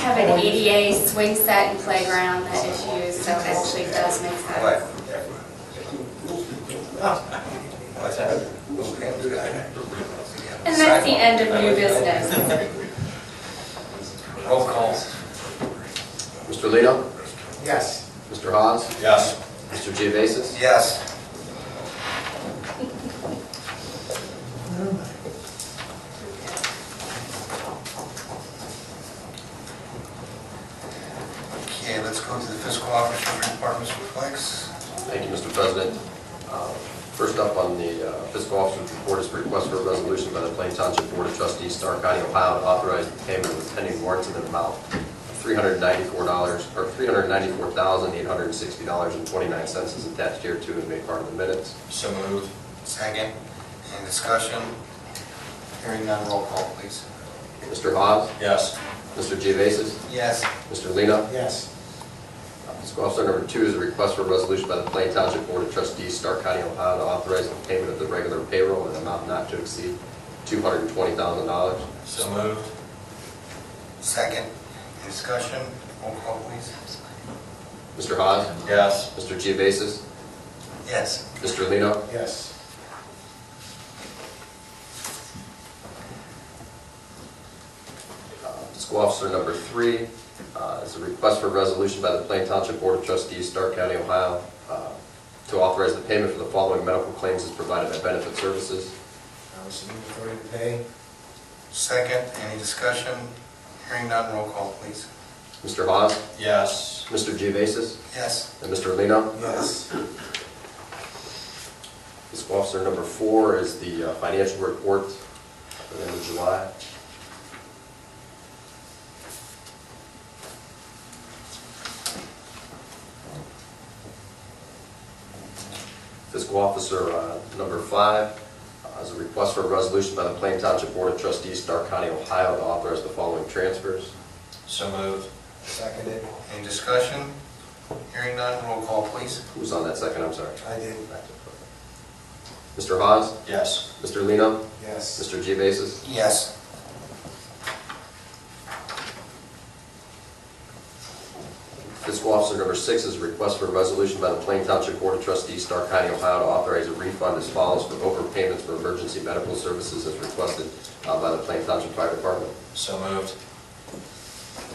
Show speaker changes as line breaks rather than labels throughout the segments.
have an ADA swing set and playground that is used, so it actually does make sense.
What's that?
And that's the end of new business.
Roll calls.
Mr. Lino?
Yes.
Mr. Hawes?
Yes.
Mr. Geovasis?
Yes. Okay, let's go to the fiscal officer report, Mr. Flex.
Thank you, Mr. President. Uh, First up on the uh, fiscal officer's report is request for a resolution by the Plain Township Board of Trustees, Stark County, Ohio, to authorize the payment of pending warrants in the amount of $394, or $394,860.29 is attached here to and made part of the minutes.
So moved. Second. Any discussion? Hearing none, roll call, please.
Mr. Hawes?
Yes.
Mr. Geovasis?
Yes.
Mr. Lino?
Yes.
Fiscal officer number two is a request for a resolution by the Plain Township Board of Trustees, Stark County, Ohio, to authorize the payment of the regular payroll in an amount not to exceed $220,000.
So moved. Second. Any discussion? Roll call, please.
Mr. Hawes?
Yes.
Mr. Geovasis?
Yes.
Mr. Lino?
Yes.
Uh, Fiscal officer number three uh, is a request for a resolution by the Plain Township Board of Trustees, Stark County, Ohio, uh, to authorize the payment for the following medical claims as provided by Benefit Services.
I was in authority to pay.
Second. Any discussion? Hearing none, roll call, please.
Mr. Hawes?
Yes.
Mr. Geovasis?
Yes.
And Mr. Lino?
Yes.
Fiscal officer number four is the uh, financial report for the end of July. Fiscal officer uh, number five uh, is a request for a resolution by the Plain Township Board of Trustees, Stark County, Ohio, to authorize the following transfers.
So moved.
Seconded.
Any discussion? Hearing none, roll call, please.
Who's on that second? I'm sorry.
I did.
Mr. Hawes?
Yes.
Mr. Lino?
Yes.
Mr. Geovasis?
Yes.
Fiscal officer number six is a request for a resolution by the Plain Township Board of Trustees, Stark County, Ohio, to authorize a refund as follows for overpayments for emergency medical services as requested uh, by the Plain Township Fire Department.
So moved.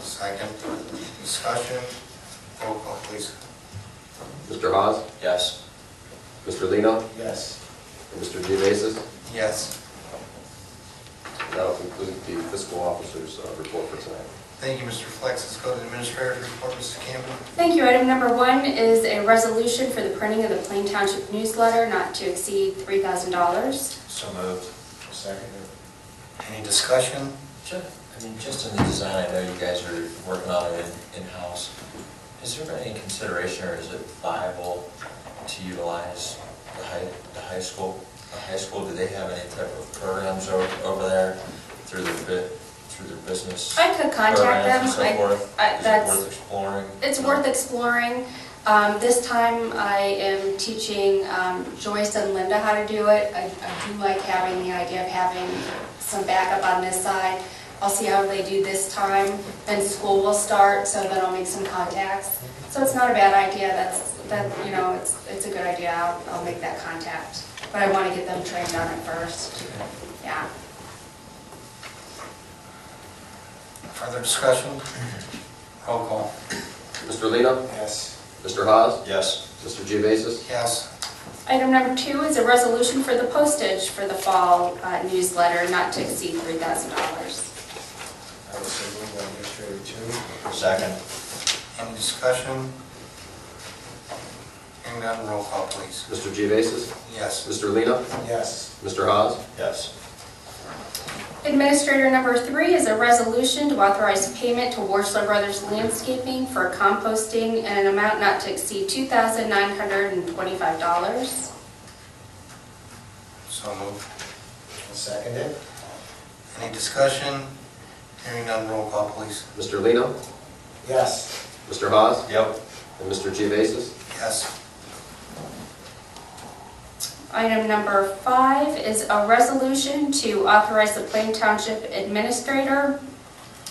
Second. Discussion? Roll call, please.
Mr. Hawes?
Yes.
Mr. Lino?
Yes.
And Mr. Geovasis?
Yes.
And That'll conclude the fiscal officer's uh, report for tonight.
Thank you, Mr. Flex. Let's go to the administrator's report, Mrs. Campbell.
Thank you. Item number one is a resolution for the printing of the Plain Township newsletter not to exceed $3,000.
So moved.
Seconded.
Any discussion?
Ju- I mean, just in the design, I know you guys are working on it in- in-house. Is there any consideration or is it viable to utilize the high, the high school? The high school, do they have any type of programs over, over there through their bit, through their business?
I could contact them.
programs
I-
And so forth?
I-
Is it
that's-
worth exploring?
It's worth exploring. Um, This time, I am teaching um, Joyce and Linda how to do it. I I do like having the idea of having some backup on this side. I'll see how they do this time, then school will start, so then I'll make some contacts. So it's not a bad idea, that's, that, you know, it's, it's a good idea, I'll, I'll make that contact. But I want to get them trained on it first, yeah.
Further discussion? Roll call.
Mr. Lino?
Yes.
Mr. Hawes?
Yes.
Mr. Geovasis?
Yes.
Item number two is a resolution for the postage for the fall uh, newsletter, not to exceed $3,000.
I was so moved by administrator two.
Second.
Any discussion? Hearing none, roll call, please.
Mr. Geovasis?
Yes.
Mr. Lino?
Yes.
Mr. Hawes?
Yes.
Administrator number three is a resolution to authorize payment to Warsler Brothers Landscaping for composting in an amount not to exceed $2,925.
So moved.
Seconded.
Any discussion? Hearing none, roll call, please.
Mr. Lino?
Yes.
Mr. Hawes?
Yep.
And Mr. Geovasis?
Yes.
Item number five is a resolution to authorize the Plain Township Administrator